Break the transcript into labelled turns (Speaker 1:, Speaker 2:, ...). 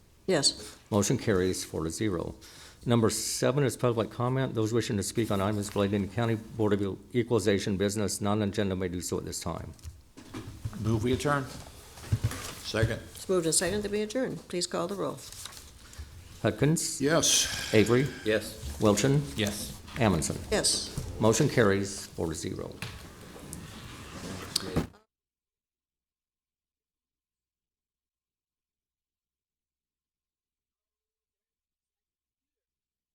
Speaker 1: Yes.
Speaker 2: Motion carries four to zero. Number seven is public comment. Those wishing to speak on items relating to County Board of Equalization business, non-agenda may do so at this time.
Speaker 3: Move we adjourn. Second.
Speaker 1: It's moved and seconded that we adjourn. Please call the roll.
Speaker 2: Hudkins,
Speaker 3: Yes.
Speaker 2: Avery,
Speaker 4: Yes.
Speaker 2: Wilchin,
Speaker 3: Yes.
Speaker 2: Amundson.
Speaker 1: Yes.
Speaker 2: Motion carries four to zero.